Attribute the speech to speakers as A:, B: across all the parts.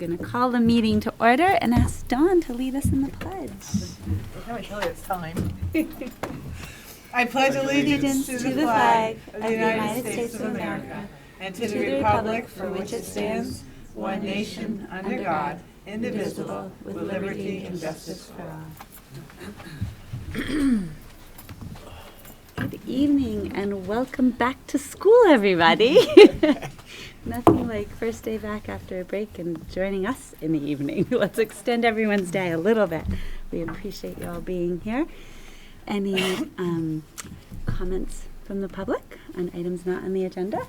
A: Going to call the meeting to order and ask Dawn to lead us in the pledge.
B: Now I tell you it's time. I pledge
A: Allegiance
B: allegiance to the flag of the United States of America and to the republic for which it stands, one nation, under God, indivisible, with liberty and justice for all.
A: Good evening and welcome back to school, everybody. Nothing like first day back after a break and joining us in the evening. Let's extend everyone's day a little bit. We appreciate you all being here. Any um, comments from the public on items not on the agenda?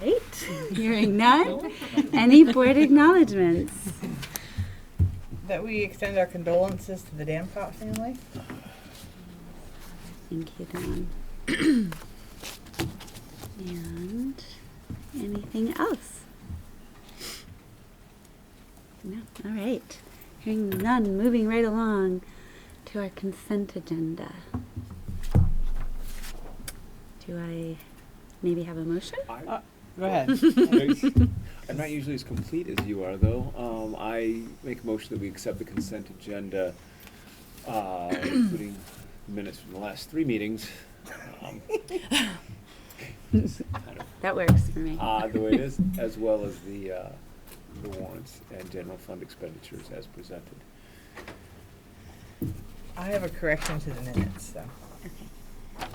A: Great. Hearing none. Any board acknowledgements?
B: That we extend our condolences to the Danfoss family.
A: Thank you, Dawn. and anything else? No. All right. Hearing none, moving right along to our consent agenda. Do I maybe have a motion?
C: I-
B: Uh, Go ahead.
C: I'm not usually as complete as you are, though. Um, I make a motion that we accept the consent agenda, uh, including minutes from the last three meetings. um, kind of
A: That works for me.
C: Odd the way it is, as well as the, uh, the warrants and general fund expenditures as presented.
B: I have a correction to the minutes, so,
A: Okay.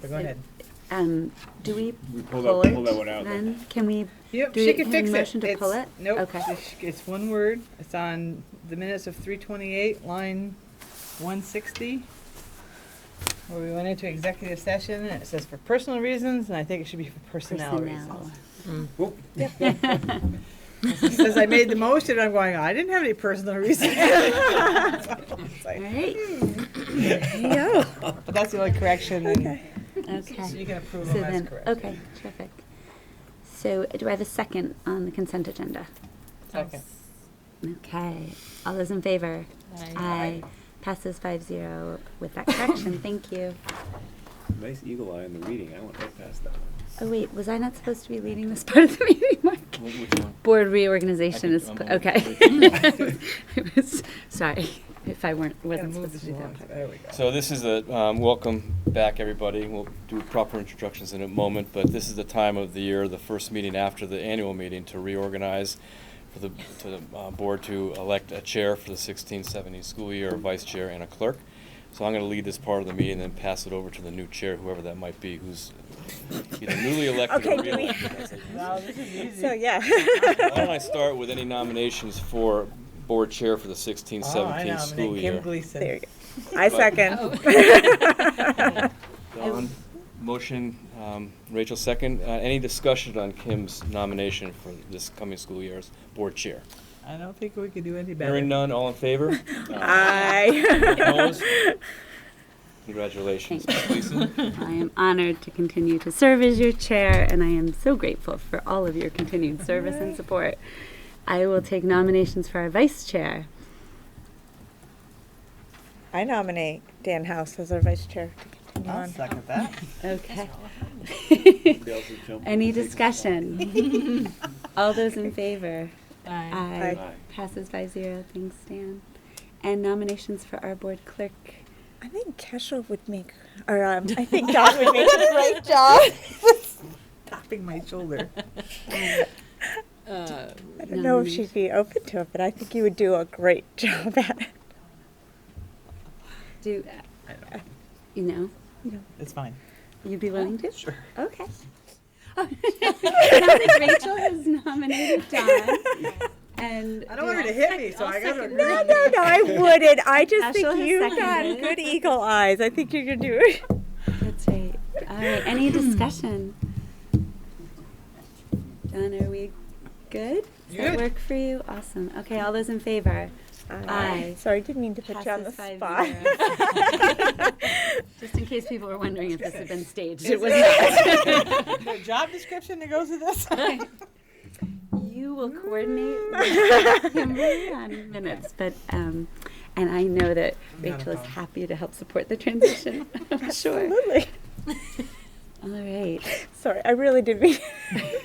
B: but go ahead.
A: Um, do we
C: We pull
A: pull
C: that, pull
A: it
C: that one out. then.
A: then? Can we?
B: Yep,
A: Do
B: she
A: we
B: can
A: have a
B: fix it.
A: motion to
B: It's-
A: pull it?
B: Nope.
A: Okay.
B: It's- It's one word. It's on the minutes of three twenty-eight, line one sixty. Where we went into executive session and it says for personal reasons, and I think it should be for personnel reasons.
C: Whoop.
B: It says I made the motion, I'm going, I didn't have any personal reasons. It's
A: All
B: like-
A: right.
C: Hmm.
A: There you go.
B: But that's the only correction and so
A: Okay.
B: you can approve
A: So
B: them as
A: then,
B: correct.
A: okay, terrific. So do I have a second on the consent agenda?
B: Okay.
A: Okay, all those in favor? Aye. Passes five zero with that correction, thank you.
C: Nice eagle eye in the reading. I went right past that one.
A: Oh wait, was I not supposed to be leading this part of the meeting, Mark?
C: What- Which one?
A: Board reorganization
C: I
A: is,
C: think
A: pl-
C: I'm
A: okay. I was- Sorry, if I weren't,
B: Gotta
A: wasn't
B: move the
A: supposed to
B: sheet
A: do
B: down.
A: that. part.
B: There we go.
D: So this is the, um, welcome back, everybody. We'll do proper introductions in a moment, but this is the time of the year, the first meeting after the annual meeting, to reorganize for the, to the, uh, board to elect a chair for the sixteen seventeen school year, a vice chair and a clerk. So I'm gonna lead this part of the meeting and then pass it over to the new chair, whoever that might be, who's either newly elected or
A: Okay, do we-
D: reelected. That's it.
B: Wow, this is easy.
A: So, yeah.
D: Why don't I start with any nominations for board chair for the sixteen
B: Oh, I
D: seventeen
B: nominate
D: school year?
B: Kim Gleason.
E: There you go. I
D: But-
A: Oh.
E: second.
D: Don, motion, um, Rachel second. Uh, Any discussion on Kim's nomination for this coming school year's board chair?
B: I don't think we could do any better.
D: Hearing none, all in favor?
E: I.
D: Opposed? Congratulations.
A: Thank
D: Gleason?
A: I am honored to continue to serve as your chair, and I am so grateful for all of your continued service and support. I will take nominations for our vice chair.
E: I nominate Dan House as our vice chair to continue
B: I'll
E: on.
B: second that.
A: Okay.
C: Somebody else is jumping.
A: Any
C: Takes-
A: discussion? All those in favor? Aye.
C: Aye.
A: Passes by zero. Thanks, Dan. And nominations for our board clerk.
E: I think Kesha would make, or um, I think Don would make a great job.
B: Tapping my shoulder.
E: I don't know if
A: Nomination.
E: she'd be open to it, but I think you would do a great job at it.
A: Do, uh, you know,
B: It's fine.
A: you'd be willing to?
B: Sure.
A: Okay. Now that Rachel has nominated Dawn, and.
B: I don't want her to hit me, so I gotta agree.
E: No, no, no, I wouldn't. I just
A: Ashel
E: think
A: has
E: you've got
A: seconded.
E: good eagle eyes. I think you could do it.
A: That's right. All right, any discussion? Don, are we good? Does that
B: Good.
A: work for you? Awesome. Okay, all those in favor? Aye.
E: Sorry, didn't mean to put you on the
A: Passes five
E: spot.
A: zero. Just in case people were wondering if this had been staged, it was not.
B: The job description that goes with this?
A: You will coordinate with Kimberly on minutes, but, um, and I know that
B: Not a
A: Rachel is
B: problem.
A: happy to help support the transition, I'm sure.
E: Absolutely.
A: All right.
E: Sorry, I really did mean.